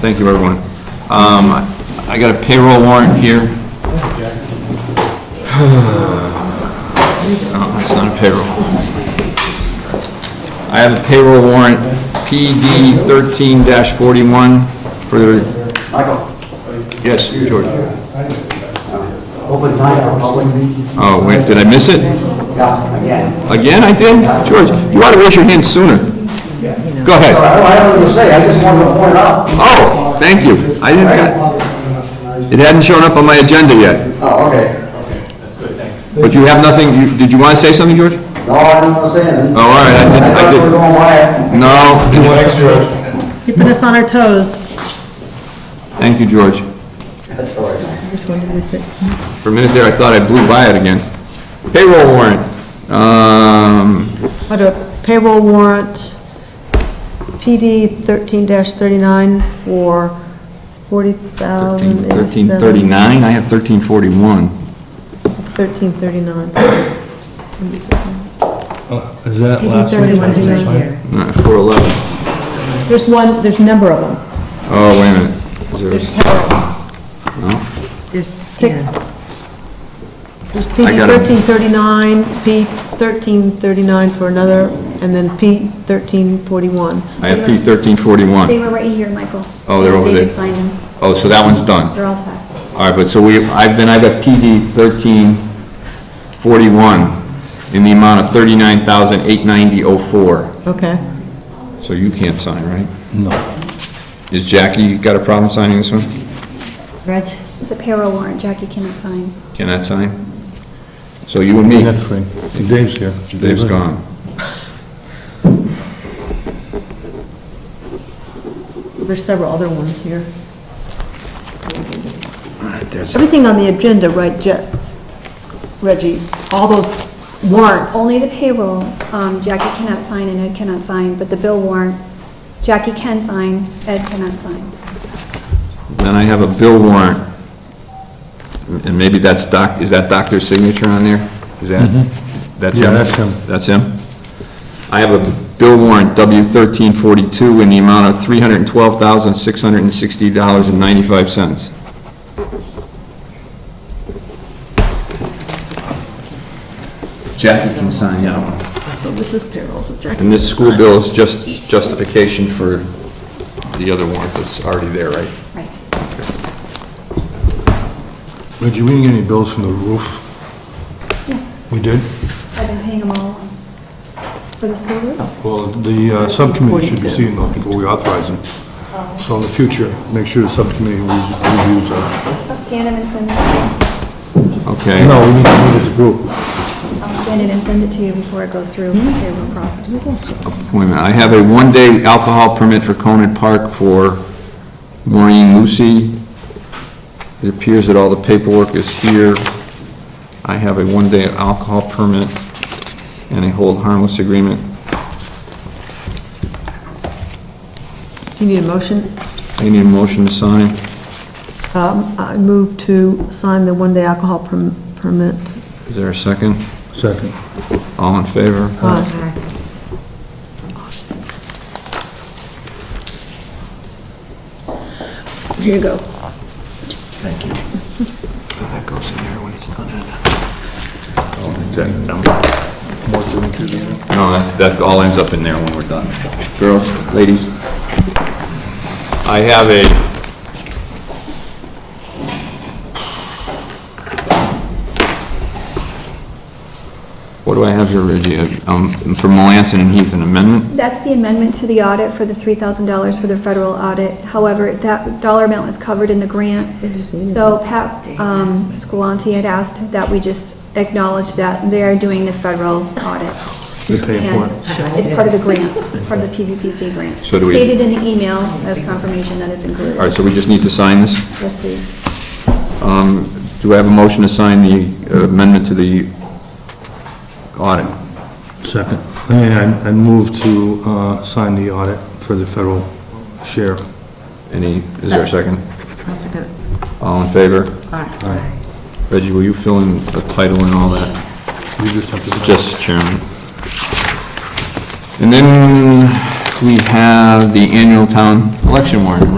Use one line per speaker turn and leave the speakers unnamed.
Thank you, everyone. Um, I I got a payroll warrant here. No, it's not a payroll. I have a payroll warrant, PD thirteen forty-one for,
Michael,
yes, George.
open time for public meeting.
Oh, wait, did I miss it?
Yeah, again.
Again, I did? George, you ought to raise your hand sooner. Go
So
ahead.
I don't have anything to say, I just wanted to point out.
Oh, thank you. I didn't, got- it hadn't shown up on my agenda yet.
Oh, okay.
But you have nothing, you- did you want to say something, George?
No, I don't want to say anything.
Oh, all right, I didn't- I
thought we
didn't-
were going by.
No.
Keeping us on our toes.
Thank you, George.
That's all right.
For a minute there, I thought I blew by it again. Payroll warrant. Um,
What a payroll warrant, PD thirteen thirty-nine for forty thousand.
1339, I have 1341.
Thirteen thirty-nine.
Oh, Is that
PD
last week?
thirty-one thirty-nine.
Not 411.
There's one, there's a number of them.
Oh, wait a minute. Is there- No?
There's
I
PD
got 'em.
thirteen thirty-nine, P thirteen thirty-nine for another, and then P thirteen forty-one.
I have P
They
1341.
were right here, Michael.
Oh, they're over there.
David signed them.
Oh, so that one's done.
They're all set.
All right, but so we, I've, then I've got PD 1341 in the amount of 39,890.04.
Okay.
So you can't sign, right?
No.
Is Jackie got a problem signing this one?
Reg,
It's a payroll warrant, Jackie cannot sign.
Cannot sign? So you and me.
That's right. Dave's here.
Dave's gone.
There's several other ones here. Everything on the agenda, right, Je- Reggie, all those warrants,
Only the payroll, um, Jackie cannot sign and Ed cannot sign, but the bill warrant, Jackie can sign, Ed cannot sign.
Then I have a bill warrant, and maybe that's doc, is that doctor's signature on there? Is that, that's him?
Mm-hmm. Yeah, that's him.
That's him? I have a bill warrant, W thirteen forty-two, in the amount of three hundred and twelve thousand, six hundred and sixty dollars and ninety-five cents. Jackie can sign that one.
so this is payroll, so Jackie.
And this school bill is just justification for the other warrant that's already there, right?
Right.
Reggie, we didn't get any bills from the roof? We did?
I've been paying them all for the school roof.
Well, the uh, subcommittee should be seeing those before we authorize them. So in the future, make sure the subcommittee reviews reviews those.
I'll scan them and send them.
Okay.
No, we need to meet as a group.
I'll scan it and send it to you before it goes through the payroll process.
Wait a minute, I have a one-day alcohol permit for Conant Park for Maureen Lucy. It appears that all the paperwork is here. I have a one-day alcohol permit and a hold harmless agreement.
Do you need a motion?
I need a motion to sign.
Um, I move to sign the one-day alcohol perm- permit.
Is there a second?
Second.
All in favor?
Uh, Here you go.
That goes in there when it's done. No, that's, that all ends up in there when we're done. Girls, ladies? I have a... What do I have here, Reggie? Um, From Melanson and Heath, an amendment?
That's the amendment to the audit for the three thousand dollars for the federal audit. However, that dollar amount was covered in the grant. So Pat, um, Squillanti had asked that we just acknowledge that they're doing the federal audit.
They're paying for
And
it.
it's part of the grant, part of the PVPC grant.
So do we-
Stated in the email as confirmation that it's included.
All right, so we just need to sign this?
Yes, please.
Um, Do I have a motion to sign the uh, amendment to the audit?
Second. And I move to uh, sign the audit for the federal share.
Any, is there a second?
I'll second it.
All in favor?
Aye.
Reggie, will you fill in the title and all that?
You just have to...
Just chairman. And then we have the annual town election warrant.